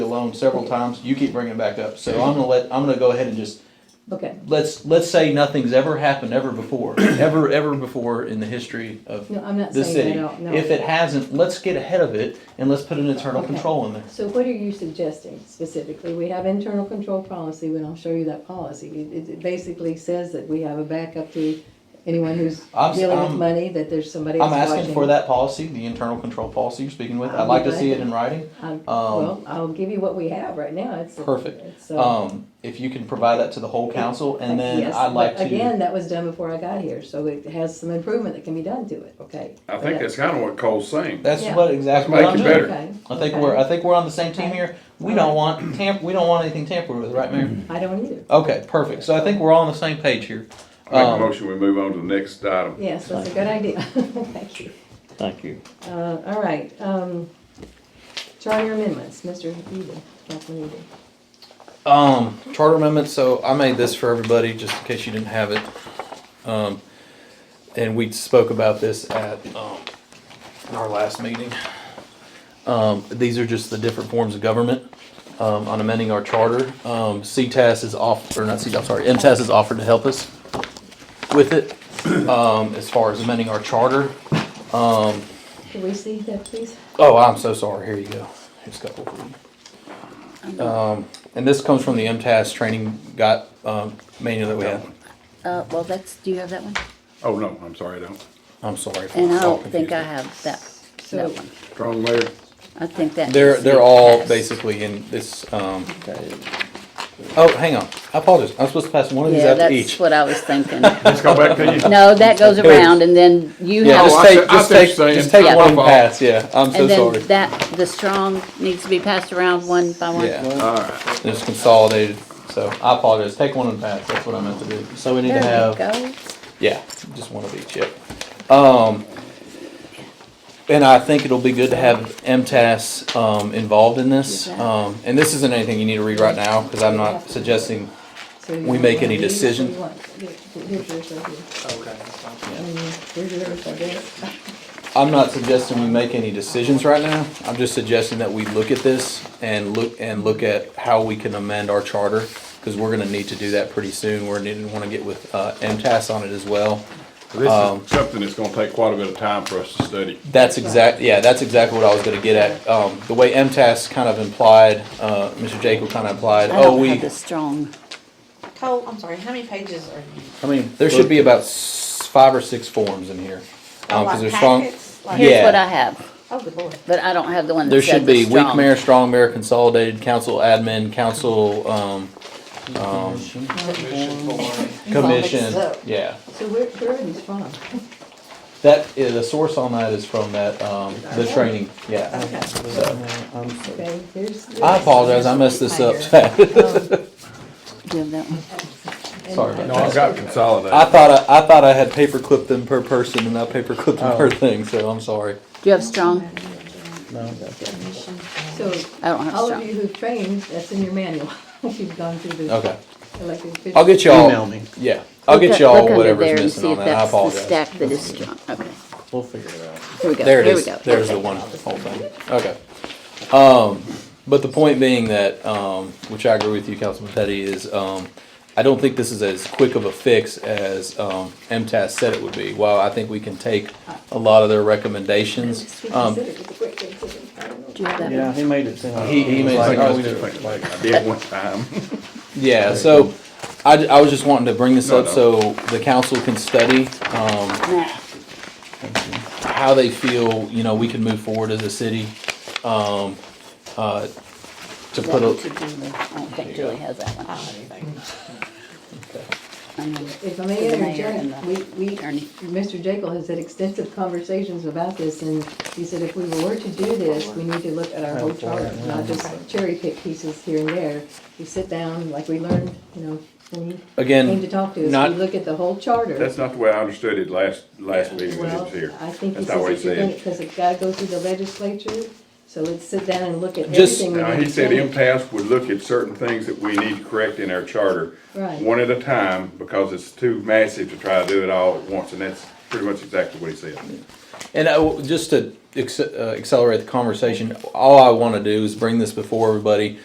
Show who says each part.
Speaker 1: alone several times. You keep bringing it back up. So I'm gonna let, I'm gonna go ahead and just,
Speaker 2: Okay,
Speaker 1: let's, let's say nothing's ever happened ever before, ever, ever before in the history of
Speaker 2: no, I'm not
Speaker 1: the
Speaker 2: saying
Speaker 1: city.
Speaker 2: that out, no.
Speaker 1: If it hasn't, let's get ahead of it and let's put an internal
Speaker 2: Okay.
Speaker 1: control in there.
Speaker 2: So what are you suggesting specifically? We have internal control policy, when I'll show you that policy. It, it basically says that we have a backup to anyone who's
Speaker 1: I'm s-
Speaker 2: dealing with
Speaker 1: I'm-
Speaker 2: money, that there's somebody else
Speaker 1: I'm
Speaker 2: watching.
Speaker 1: asking for that policy, the internal control policy you're speaking with. I'd like to see it in writing.
Speaker 2: I'm-
Speaker 1: um,
Speaker 2: Well, I'll give you what we have right now, it's.
Speaker 1: Perfect.
Speaker 2: it's, uh,
Speaker 1: Um, if you can provide that to the whole council and then
Speaker 2: yes,
Speaker 1: I'd like
Speaker 2: but
Speaker 1: to,
Speaker 2: Again, that was done before I got here, so it has some improvement that can be done to it, okay?
Speaker 3: I think that's kind of what Cole's saying.
Speaker 1: that's
Speaker 2: yeah.
Speaker 1: what exactly
Speaker 3: Let's
Speaker 1: what I'm
Speaker 3: make it
Speaker 1: doing.
Speaker 3: better.
Speaker 2: Okay,
Speaker 1: I think
Speaker 2: okay.
Speaker 1: we're, I think we're on the same team
Speaker 2: Okay. Mm-hmm.
Speaker 1: here. We don't want tamp, we don't want anything tampered with, right, Mayor?
Speaker 2: I don't either.
Speaker 1: Okay, perfect. So I think we're all on the same page here.
Speaker 3: I make a
Speaker 1: Um,
Speaker 3: motion, we move on to the next item.
Speaker 2: Yes, that's a good idea. Thank you.
Speaker 4: Thank you.
Speaker 2: Uh, all right, um, charter amendments, Mr. Eden, Councilman Eden.
Speaker 1: Um, charter amendment, so I made this for everybody, just in case you didn't have it. Um, and we spoke about this at, um, our last meeting. Um, these are just the different forms of government, um, on amending our charter. Um, CTAS is off, or not CTAS, I'm sorry, MTAS is offered to help us with it, um, as far as amending our charter.
Speaker 2: Can we see that, please?
Speaker 1: Oh, I'm so sorry. Here you go. Here's a couple for you. Um, and this comes from the MTAS training got, um, manual that we had.
Speaker 5: Uh, well, that's, do you have that one?
Speaker 3: Oh, no, I'm sorry, I don't.
Speaker 1: I'm sorry. if
Speaker 5: And I
Speaker 1: it's all
Speaker 5: don't think I
Speaker 1: confusing.
Speaker 5: have that,
Speaker 2: So-
Speaker 5: that one.
Speaker 3: Strong mayor,
Speaker 5: I think that.
Speaker 1: They're,
Speaker 5: is
Speaker 1: they're all
Speaker 5: passed.
Speaker 1: basically in this, um, oh, hang on. I apologize. I'm supposed to pass one of these
Speaker 5: Yeah,
Speaker 1: out to each.
Speaker 5: that's what I was thinking.
Speaker 3: let's go back to you.
Speaker 5: No, that goes around and then you
Speaker 1: Yeah,
Speaker 5: have
Speaker 1: just
Speaker 3: Oh, I
Speaker 1: take,
Speaker 3: see- I
Speaker 1: just
Speaker 3: see what
Speaker 1: take,
Speaker 3: you're saying.
Speaker 1: just take
Speaker 5: Yeah.
Speaker 1: one and
Speaker 3: My fault.
Speaker 1: pass. Yeah, I'm so
Speaker 5: And
Speaker 1: sorry.
Speaker 5: then that, the strong needs to be passed around one by one.
Speaker 1: Yeah. It's consolidated. So I apologize. Take one and pass. That's what I meant to do. So we need to
Speaker 5: There
Speaker 1: have.
Speaker 5: we go.
Speaker 1: Yeah, just one of each, yep. Um, and I think it'll be good to have MTS, um, involved in this. Um, and this isn't anything you need to read right now, cause I'm not suggesting,
Speaker 2: so you
Speaker 1: We make
Speaker 2: want
Speaker 1: any
Speaker 2: these or
Speaker 1: decision?
Speaker 2: you want- here- Here's yours right here. And Here's yours right there.
Speaker 1: I'm not suggesting we make any decisions right now. I'm just suggesting that we look at this and look, and look at how we can amend our charter. Cause we're gonna need to do that pretty soon. We're gonna wanna get with, uh, MTS on it as well.
Speaker 3: This
Speaker 1: Um,
Speaker 3: is something that's gonna take quite a bit of time for us to study.
Speaker 1: That's exact, yeah, that's exactly what I was gonna get at. Um, the way MTS kind of implied, uh, Mr. Jacob kind of implied,
Speaker 5: I
Speaker 1: oh,
Speaker 5: don't
Speaker 1: we,
Speaker 5: have the strong.
Speaker 6: Cole, I'm sorry, how many pages are you?
Speaker 1: I mean, there should be about s- five or six forms in here. Um, 'cause
Speaker 6: Like
Speaker 1: there's strong,
Speaker 6: packets? Like-
Speaker 1: Yeah.
Speaker 5: Here's what I have,
Speaker 6: Oh, good lord.
Speaker 5: but I don't have the one
Speaker 1: there
Speaker 5: that said
Speaker 1: should
Speaker 5: the
Speaker 1: be weak
Speaker 5: strong.
Speaker 1: mayor, strong mayor, consolidated, council admin, council, um, um, commission,
Speaker 6: mixed up.
Speaker 1: yeah.
Speaker 2: So where, where are these from?
Speaker 1: That, yeah, the source on that is from that, um, the training, yeah.
Speaker 6: Okay.
Speaker 2: Okay, here's. Um,
Speaker 1: I apologize, I messed this up. Sorry
Speaker 5: Do you have that one?
Speaker 1: about that.
Speaker 3: No, I've got
Speaker 1: I
Speaker 3: consolidated.
Speaker 1: thought I, I thought I had paperclipped them per person and I paperclipped them
Speaker 4: Oh.
Speaker 1: per thing, so I'm sorry.
Speaker 5: Do you have strong?
Speaker 2: So
Speaker 5: I don't have
Speaker 2: all of
Speaker 5: strong.
Speaker 2: you who've trained, that's in your manual. You've gone through the.
Speaker 1: Okay.
Speaker 2: elected officials.
Speaker 1: I'll get y'all.
Speaker 4: Email me.
Speaker 1: Yeah. I'll
Speaker 5: Look
Speaker 1: get
Speaker 5: up-
Speaker 1: y'all
Speaker 5: look under there
Speaker 1: whatever's
Speaker 5: and
Speaker 1: missing
Speaker 5: see
Speaker 1: on
Speaker 5: if
Speaker 1: that. I
Speaker 5: that's the
Speaker 1: apologize.
Speaker 5: Stack that is strong, okay.
Speaker 4: We'll figure it out.
Speaker 5: Here we go,
Speaker 1: There it
Speaker 5: here we
Speaker 1: is.
Speaker 5: go.
Speaker 1: There's the
Speaker 5: Okay.
Speaker 1: one whole thing. Okay. Um, but the point being that, um, which I agree with you, Councilman Petty, is um, I don't think this is as quick of a fix as um, MTS said it would be. While I think we can take a lot of their recommendations. Um,
Speaker 5: Do you have that
Speaker 4: Yeah,
Speaker 5: one?
Speaker 4: he made it sound.
Speaker 1: he, he made
Speaker 3: Like,
Speaker 1: some
Speaker 4: oh,
Speaker 3: I was like, like I did one time.
Speaker 1: Yeah, so I, I was just wanting to bring this
Speaker 3: No,
Speaker 1: up
Speaker 3: no.
Speaker 1: so the council can study, um,
Speaker 5: Nah.
Speaker 1: how they feel, you know, we can move forward as a city, um, uh, to
Speaker 5: That
Speaker 1: put
Speaker 5: one
Speaker 1: a,
Speaker 5: to Julie. I don't think Julie has that one.
Speaker 6: I don't have anything.
Speaker 5: And then-
Speaker 2: If I may
Speaker 5: The mayor
Speaker 2: interject,
Speaker 5: and
Speaker 2: we,
Speaker 5: the
Speaker 2: we,
Speaker 5: attorney.
Speaker 2: Mr. Jekyll has had extensive conversations about this, and he said if we were to do this, we need to look at our whole charter, not just cherry pick pieces here and there. We sit down, like we learned, you know, when you
Speaker 1: Again,
Speaker 2: came to talk to us,
Speaker 1: not-
Speaker 2: we look at the whole charter.
Speaker 3: That's not the way I understood it last, last meeting when he
Speaker 2: Well,
Speaker 3: was here.
Speaker 2: I think he
Speaker 3: That's not what he
Speaker 2: says
Speaker 3: said.
Speaker 2: because it gotta go through the legislature, so let's sit down and look at
Speaker 1: Just-
Speaker 2: everything. we
Speaker 3: Now,
Speaker 2: need
Speaker 3: he
Speaker 2: to
Speaker 3: said
Speaker 2: change.
Speaker 3: MTS would look at certain things that we need to correct in our charter.
Speaker 2: Right.
Speaker 3: One at a time, because it's too massive to try to do it all at once, and that's pretty much exactly what he said.
Speaker 1: and I w just to acce- uh, accelerate the conversation, all I wanna do is bring this before everybody,